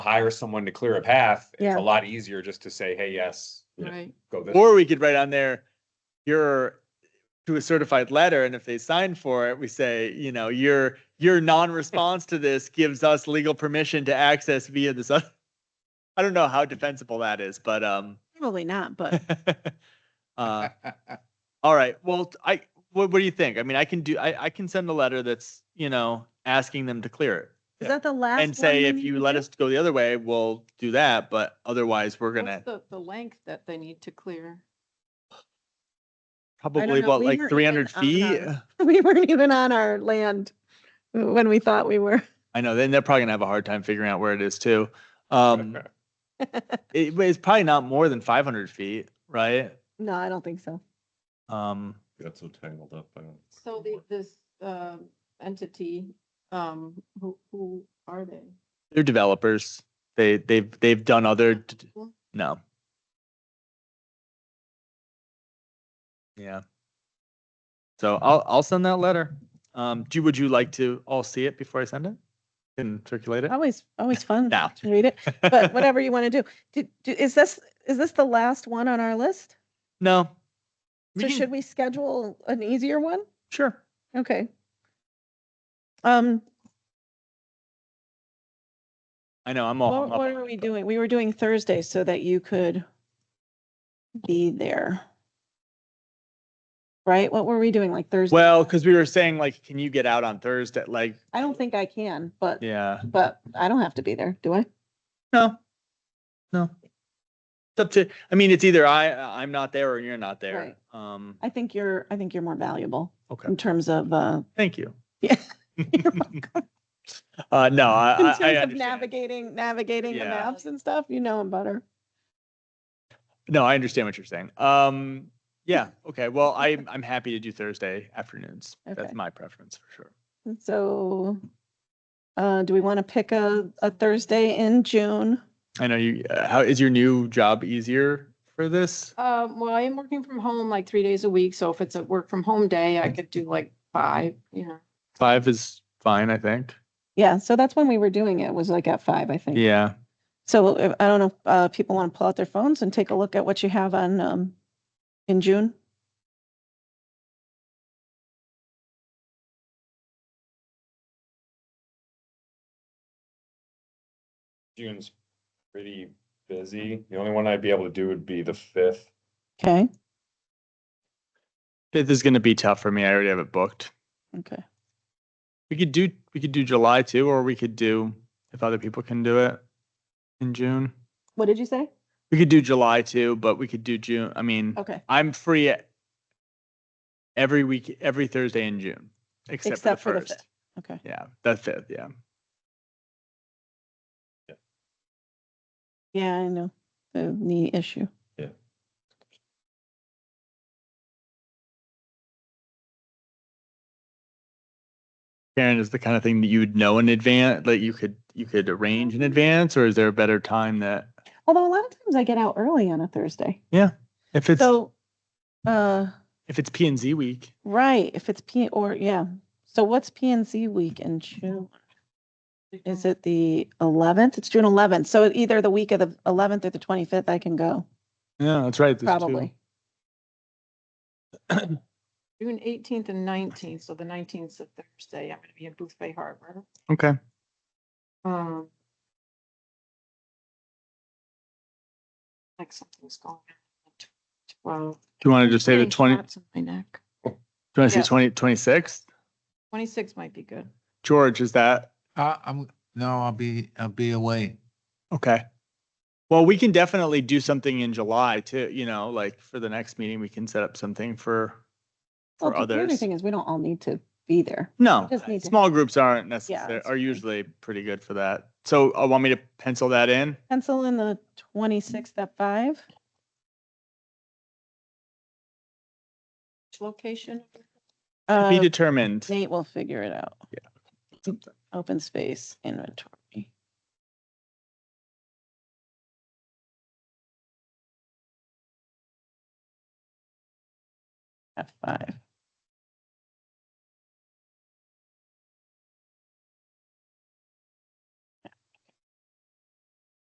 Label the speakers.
Speaker 1: hire someone to clear a path, it's
Speaker 2: Yeah.
Speaker 1: a lot easier just to say, hey, yes,
Speaker 3: Right.
Speaker 1: go this.
Speaker 4: Or we could write on there, you're to a certified letter, and if they sign for it, we say, you know, your your non-response to this gives us legal permission to access via this. other I don't know how defensible that is, but um,
Speaker 2: Probably not, but
Speaker 4: uh, all right. Well, t- I what, what do you think? I mean, I can do. I I can send a letter that's you know asking them to clear it
Speaker 2: is that the last?
Speaker 4: and say if you let us go the other way, we'll do that, but otherwise we're gonna
Speaker 3: What's the, the length that they need to clear?
Speaker 4: probably
Speaker 2: know.
Speaker 4: what
Speaker 2: We
Speaker 4: like
Speaker 2: weren't
Speaker 4: three hundred
Speaker 2: even on
Speaker 4: feet.
Speaker 2: our- We weren't even on our land when we thought we were.
Speaker 4: I know. Then they're probably gonna have a hard time figuring out where it is too. Um, it, but it's probably not more than five hundred feet, right?
Speaker 2: No, I don't think so.
Speaker 4: Um,
Speaker 5: Got so tangled up. I don't-
Speaker 3: So the, this, um, entity, um, who, who are they?
Speaker 4: they're developers. They they've they've done other d-
Speaker 3: Well,
Speaker 4: no. Yeah. So I'll I'll send that letter. Um, do you- would you like to all see it before I send it? And circulate it?
Speaker 2: Always, always fun
Speaker 4: No.
Speaker 2: to read it, but whatever you want to do. Do- do. Is this, is this the last one on our list?
Speaker 4: No.
Speaker 2: So should we schedule an easier one?
Speaker 4: Sure.
Speaker 2: Okay. Um,
Speaker 4: I know, Oh, I'm all.
Speaker 2: what,
Speaker 4: hung up
Speaker 2: what
Speaker 4: on
Speaker 2: are
Speaker 4: it,
Speaker 2: we
Speaker 4: but-
Speaker 2: doing? We were doing Thursday so that you could be there. Right? What were we doing like Thursday?
Speaker 4: Well, because we were saying like, can you get out on Thursday? Like,
Speaker 2: I don't think I can, but,
Speaker 4: yeah,
Speaker 2: but I don't have to be there, do I?
Speaker 4: no, no. It's up to, I mean, it's either I, I'm not there or you're not there. Um,
Speaker 2: I think you're, I think you're more valuable
Speaker 4: okay,
Speaker 2: in terms of, uh,
Speaker 4: thank you.
Speaker 2: Yeah.
Speaker 4: Uh, no, I,
Speaker 2: in
Speaker 4: I- I
Speaker 2: terms of
Speaker 4: understand.
Speaker 2: navigating, navigating the
Speaker 4: Yeah.
Speaker 2: maps and stuff, you know him better.
Speaker 4: No, I understand what you're saying. Um, yeah, okay. Well, I, I'm happy to do Thursday afternoons.
Speaker 2: Okay.
Speaker 4: That's my preference for sure.
Speaker 2: And So, uh, do we want to pick a, a Thursday in June?
Speaker 4: I know you, uh, how, is your new job easier for this?
Speaker 3: Um, well, I am working from home like three days a week, so if it's a work from home day, I could do like five, you know.
Speaker 4: Five is fine, I think.
Speaker 2: Yeah, so that's when we were doing it, was like at five, I think.
Speaker 4: Yeah.
Speaker 2: So uh, I don't know, if, uh, people want to pull out their phones and take a look at what you have on, um, in June?
Speaker 1: June's pretty busy. The only one I'd be able to do would be the fifth.
Speaker 2: Okay,
Speaker 4: Fifth is going to be tough for me. I already have it booked.
Speaker 2: okay.
Speaker 4: We could do we could do July too, or we could do if other people can do it in June.
Speaker 2: What did you say?
Speaker 4: We could do July too, but we could do June. I mean,
Speaker 2: Okay,
Speaker 4: I'm free e-, every week, every Thursday in June, except,
Speaker 2: Except
Speaker 4: for
Speaker 2: for
Speaker 4: the
Speaker 2: the
Speaker 4: first.
Speaker 2: fifth. okay.
Speaker 4: yeah, the fifth. Yeah,
Speaker 2: Yeah, I know, the knee issue.
Speaker 4: Karen is the kind of thing that you would know in advance. Like you could you could arrange
Speaker 2: Mm-hmm.
Speaker 4: in advance, or is there a better time that
Speaker 2: Although a lot of times I get out early on a Thursday.
Speaker 4: if it's
Speaker 2: So, uh,
Speaker 4: if it's P and Z week?
Speaker 2: right, if it's P or, yeah. So what's P and Z week in June? Is it the eleventh? It's June eleventh. So either the week of the eleventh or the twenty-fifth, I can go,
Speaker 4: Yeah, that's right. there's two.
Speaker 2: probably.
Speaker 3: June eighteenth and nineteenth, so the nineteenth is a Thursday, I'm gonna be in Booth Bay Harbor.
Speaker 4: Okay.
Speaker 3: Um. Like something's going on. Well.
Speaker 4: Do you want to just say the twenty? Do
Speaker 3: Shots in My neck.
Speaker 4: you want to
Speaker 3: Yeah.
Speaker 4: say twenty twenty sixth?
Speaker 3: Twenty-six might be good.
Speaker 4: George, is that
Speaker 6: Uh, I'm, no, I'll be, I'll be away.
Speaker 4: Okay. Well, we can definitely do something in July too, you know, like for the next meeting, we can set up something for,
Speaker 2: Well,
Speaker 4: for
Speaker 2: the other
Speaker 4: others.
Speaker 2: thing is we don't all need to be there.
Speaker 4: No,
Speaker 2: just need to-
Speaker 4: small groups aren't
Speaker 2: Yeah,
Speaker 4: necessary,
Speaker 2: that's
Speaker 4: are
Speaker 2: fine.
Speaker 4: usually pretty good for that. So I want me to pencil that in.
Speaker 2: Pencil in the twenty-sixth at five.
Speaker 3: Which Location,
Speaker 4: To Be
Speaker 2: Uh,
Speaker 4: determined.
Speaker 2: Nate will figure it out.
Speaker 4: Yeah.
Speaker 2: Open space inventory. At five.